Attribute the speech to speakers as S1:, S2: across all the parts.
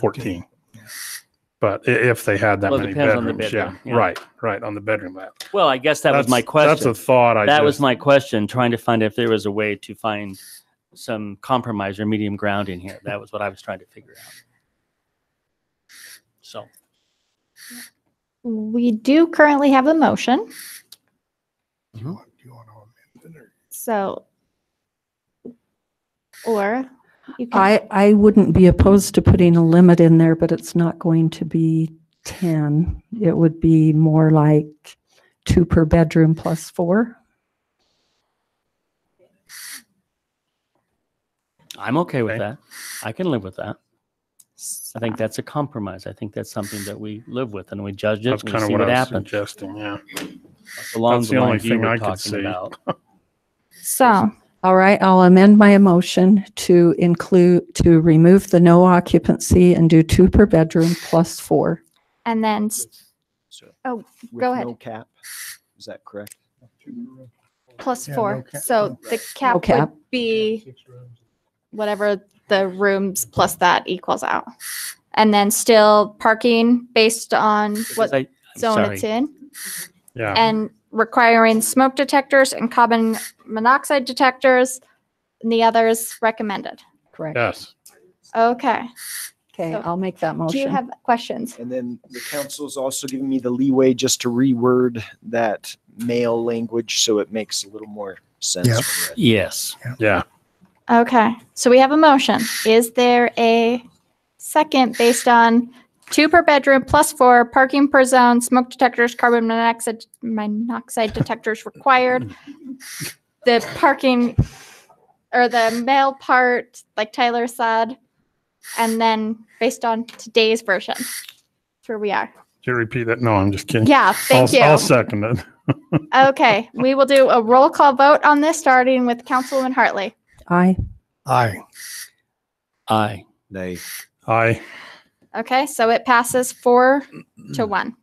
S1: 14. But i- if they had that
S2: Well, it
S1: many
S2: depends on
S1: bedrooms,
S2: the
S1: yeah,
S2: bedroom, yeah.
S1: right, right on the bedroom map.
S2: Well, I guess that was
S1: That's-
S2: my question.
S1: That's a thought. I
S2: that
S1: just,
S2: was my question, trying to find if there was a way to find some compromise or medium ground in here. That was what I was trying to figure out. So,
S3: We do currently have a motion,
S1: You want- you want to amend it or-
S3: so. Or you can,
S4: I, I wouldn't be opposed to putting a limit in there, but it's not going to be 10. It would be more like two per bedroom plus four.
S2: I'm okay with
S1: Okay.
S2: that. I can live with that. I think that's a compromise. I think that's something that we live with and we judge it
S1: That's
S2: and we
S1: kind of
S2: see
S1: what
S2: what
S1: I was
S2: happens.
S1: suggesting, yeah.
S2: Along
S1: that's
S2: the
S1: the only
S2: lines you
S1: thing
S2: were
S1: I could
S2: talking
S1: see.
S2: about.
S3: so,
S4: All right, I'll amend my motion to include, to remove the no occupancy and do two per bedroom plus four.
S3: and then, s-
S5: So
S3: Oh,
S5: with
S3: go ahead.
S5: No cap, is that correct?
S3: plus
S1: Yeah,
S3: four,
S1: no cap.
S3: so the cap would
S4: cap.
S3: be whatever the rooms plus that equals out. And then still parking based on what
S2: I- I'm
S3: zone
S2: sorry.
S3: it's in.
S4: Um,
S1: Yeah.
S3: and requiring smoke detectors and carbon monoxide detectors. And the others recommended.
S4: Correct.
S1: Yes.
S3: Okay.
S4: Okay,
S3: So,
S4: I'll make that
S3: Do you
S4: motion.
S3: have questions?
S5: And then the council is also giving me the leeway just to reword that male language so it makes a little more sense.
S6: Yeah.
S5: when read.
S2: Yes.
S1: Yeah.
S3: Okay. So we have a motion. Is there a second based on two per bedroom plus four parking per zone, smoke detectors, carbon monoxide, monoxide detectors required? The parking or the male part, like Tyler said, and then based on today's version. That's where we are.
S1: Did you repeat that? No, I'm just kidding.
S3: Yeah,
S1: I'll,
S3: thank you.
S1: I'll second it.
S3: Okay, we will do a roll call vote on this, starting with Councilwoman Hartley.
S4: Aye.
S6: Aye.
S2: I.
S5: Nay.
S1: Aye.
S3: Okay, so it passes four to one.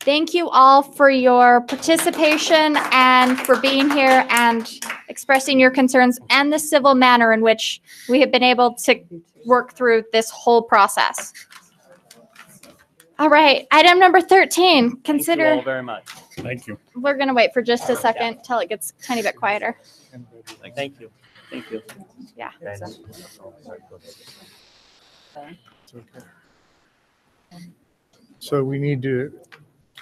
S3: Thank you all for your participation and for being here and expressing your concerns and the civil manner in which we have been able to work through this whole process. All right, item number 13,
S2: Thank you all
S3: consider,
S2: very much.
S1: Thank you.
S3: we're going to wait for just a second till it gets a tiny bit quieter.
S2: Thank you. Thank you.
S3: Yeah.
S6: So we need to,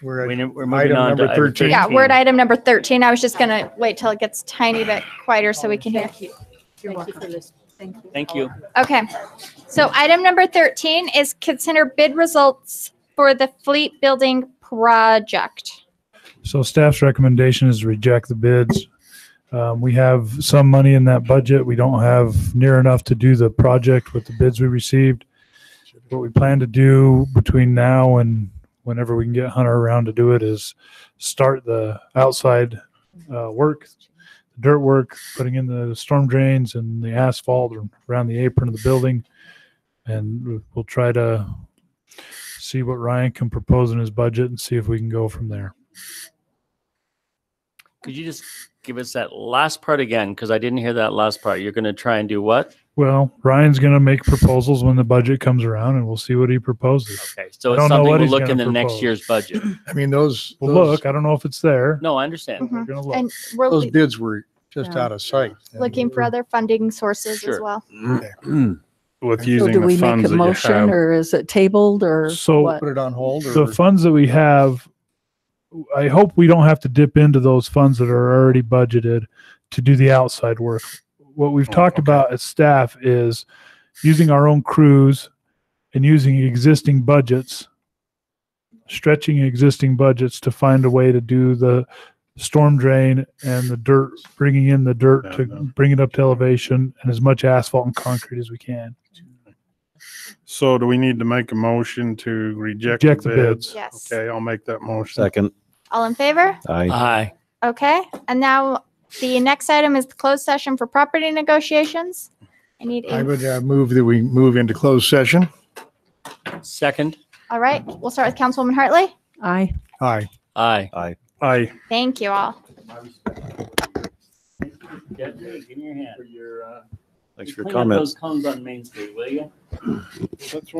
S6: we're at
S2: We- We're moving
S6: item
S2: on to
S6: number
S2: item
S6: 13.
S3: Yeah, word item number 13. I was just going to wait till it gets tiny bit quieter so we can hear.
S2: Thank you.
S3: Okay. So item number 13 is consider bid results for the fleet building project.
S7: So staff's recommendation is to reject the bids. Um, we have some money in that budget. We don't have near enough to do the project with the bids we received. What we plan to do between now and whenever we can get Hunter around to do it is start the outside, uh, work, dirt work, putting in the storm drains and the asphalt around the apron of the building. And we'll try to see what Ryan can propose in his budget and see if we can go from there.
S2: Could you just give us that last part again? Because I didn't hear that last part. You're going to try and do what?
S7: Well, Ryan's going to make proposals when the budget comes around, and we'll see what he proposes.
S2: Okay, so
S7: I
S2: it's
S7: don't know
S2: something
S7: what
S2: we'll
S7: he's
S2: look in
S7: gonna
S2: the next
S7: propose.
S2: year's budget.
S6: I mean, those,
S7: Well,
S6: those,
S7: look, I don't know if it's there.
S2: No, I understand.
S7: We're gonna look.
S3: Mm-hmm. And we're
S6: those bids were just
S4: Yeah.
S6: out of sight. and
S3: looking for
S6: we're-
S3: other funding sources as
S2: Sure.
S3: well.
S1: With
S4: So
S1: using
S4: do
S1: the
S4: we
S1: funds
S4: make a
S1: that you
S4: motion
S1: have.
S4: or is it tabled or
S7: So-
S4: what?
S6: Put it on hold or?
S7: The funds that we have, I hope we don't have to dip into those funds that are already budgeted to do the outside work. What we've
S1: Oh,
S7: talked
S1: okay.
S7: about as staff is using our own crews and using existing budgets, stretching existing budgets to find a way to do the storm drain and the dirt, bringing in the dirt
S1: Yeah,
S7: to
S1: no.
S7: bring it up to elevation and as much asphalt and concrete as we can.
S1: So do we need to make a motion to reject the
S7: Reject the
S1: bids?
S7: bids.
S3: Yes.
S1: Okay, I'll make that motion.
S5: Second.
S3: All in favor?
S5: Aye.
S2: Aye.
S3: Okay. And now the next item is the closed session for property negotiations. I need,
S6: I
S3: a-
S6: would uh, move that we move into closed session.
S2: Second?
S3: all right, we'll start with Councilwoman Hartley.
S4: Aye.
S6: Aye.
S2: Aye.
S1: Aye.
S3: Thank you all.
S2: Give me your hand.
S8: Thanks
S2: You
S8: for your
S2: clean up
S8: comments.
S2: Those cones on Main Street, will you?